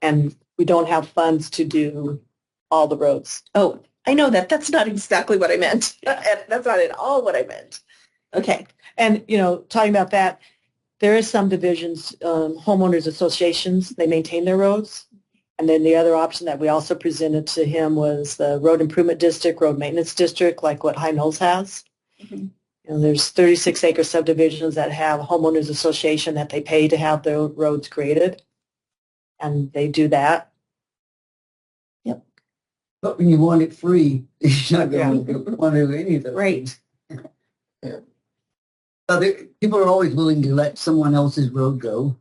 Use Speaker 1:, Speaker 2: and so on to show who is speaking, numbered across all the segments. Speaker 1: and we don't have funds to do all the roads. Oh, I know that. That's not exactly what I meant. That's not at all what I meant. Okay. And, you know, talking about that, there is some divisions, um, homeowners associations, they maintain their roads. And then the other option that we also presented to him was the road improvement district, road maintenance district, like what High Knolls has.
Speaker 2: Mhm.
Speaker 1: And there's 36 acre subdivisions that have homeowners association that they pay to have their roads created. And they do that.
Speaker 3: But when you want it free, you're not going to want to do anything.
Speaker 2: Right.
Speaker 3: So there, people are always willing to let someone else's road go.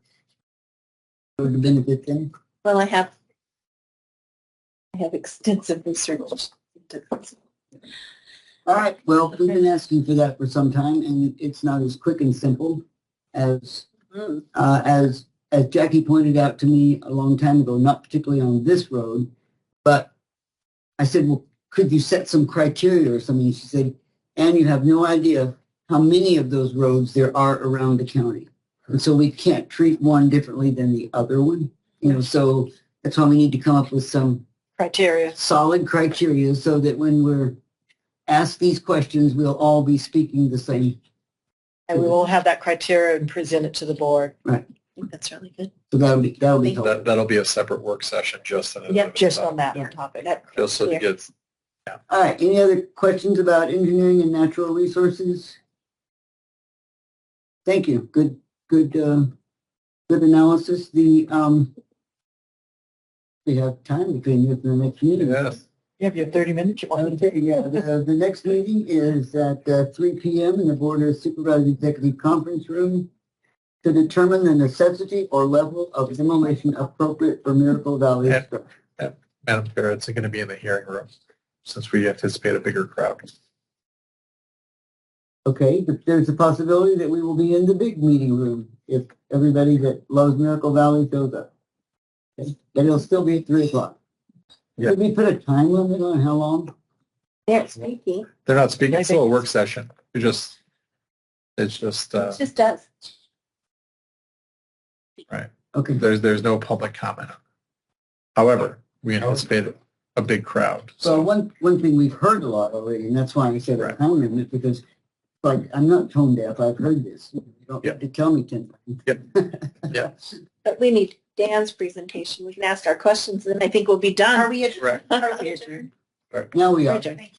Speaker 3: Road to benefit them.
Speaker 2: Well, I have, I have extensive research. into this.
Speaker 3: All right, well, we've been asking for that for some time and it's not as quick and simple as
Speaker 1: Mm,
Speaker 3: uh, as as Jackie pointed out to me a long time ago, not particularly on this road, but I said, well, could you set some criteria or something? She said, and you have no idea how many of those roads there are around the county. And so we can't treat one differently than the other one. You know, so that's why we need to come up with some
Speaker 1: Criteria.
Speaker 3: solid criteria so that when we're asked these questions, we'll all be speaking the same.
Speaker 1: And we will have that criteria and present it to the board.
Speaker 2: I think that's really good.
Speaker 3: So that'll be, that'll be helpful.
Speaker 4: That, that'll be a separate work session, just in. and
Speaker 1: Yep,
Speaker 4: of
Speaker 1: just
Speaker 4: itself.
Speaker 1: on that
Speaker 3: Yeah.
Speaker 1: topic.
Speaker 4: Just so
Speaker 1: Yeah.
Speaker 4: it gets,
Speaker 3: All right, any other questions about engineering and natural resources? Thank you, good, good, uh, good analysis, the, um, we have time between you and the next meeting.
Speaker 4: yes,
Speaker 1: You have your 30 minutes. You want me to
Speaker 3: Okay, yeah, the, the next meeting is at uh, three P M in the Board of Supervisors Executive Conference Room to determine the necessity or level of demolition appropriate for Miracle Valley
Speaker 4: Yeah.
Speaker 3: structure.
Speaker 4: Madam Chair, it's going to be in the hearing room, since we anticipate a bigger crowd.
Speaker 3: Okay, but there's a possibility that we will be in the big meeting room if everybody that loves Miracle Valley shows up. Okay, But it'll still be at three o'clock.
Speaker 4: Yeah.
Speaker 3: Did we put a time limit on how long?
Speaker 2: They're speaking.
Speaker 4: They're not speaking,
Speaker 1: I
Speaker 4: it's still a
Speaker 1: think-
Speaker 4: work session, it's just, it's just, uh,
Speaker 2: It's just us.
Speaker 3: Okay,
Speaker 4: there's, there's no public comment. However, we anticipate a big crowd,
Speaker 3: so
Speaker 4: so
Speaker 3: one, one thing we've heard a lot already, and that's why I said a
Speaker 4: Right.
Speaker 3: time limit, because like, I'm not tone deaf, I've heard this. You don't
Speaker 4: Yeah.
Speaker 3: have to tell me ten times.
Speaker 2: But we need Dan's presentation. We can ask our questions and then I think we'll be done. Are we
Speaker 4: Correct.
Speaker 2: adjourned?
Speaker 3: Now we are.
Speaker 2: Adjourned.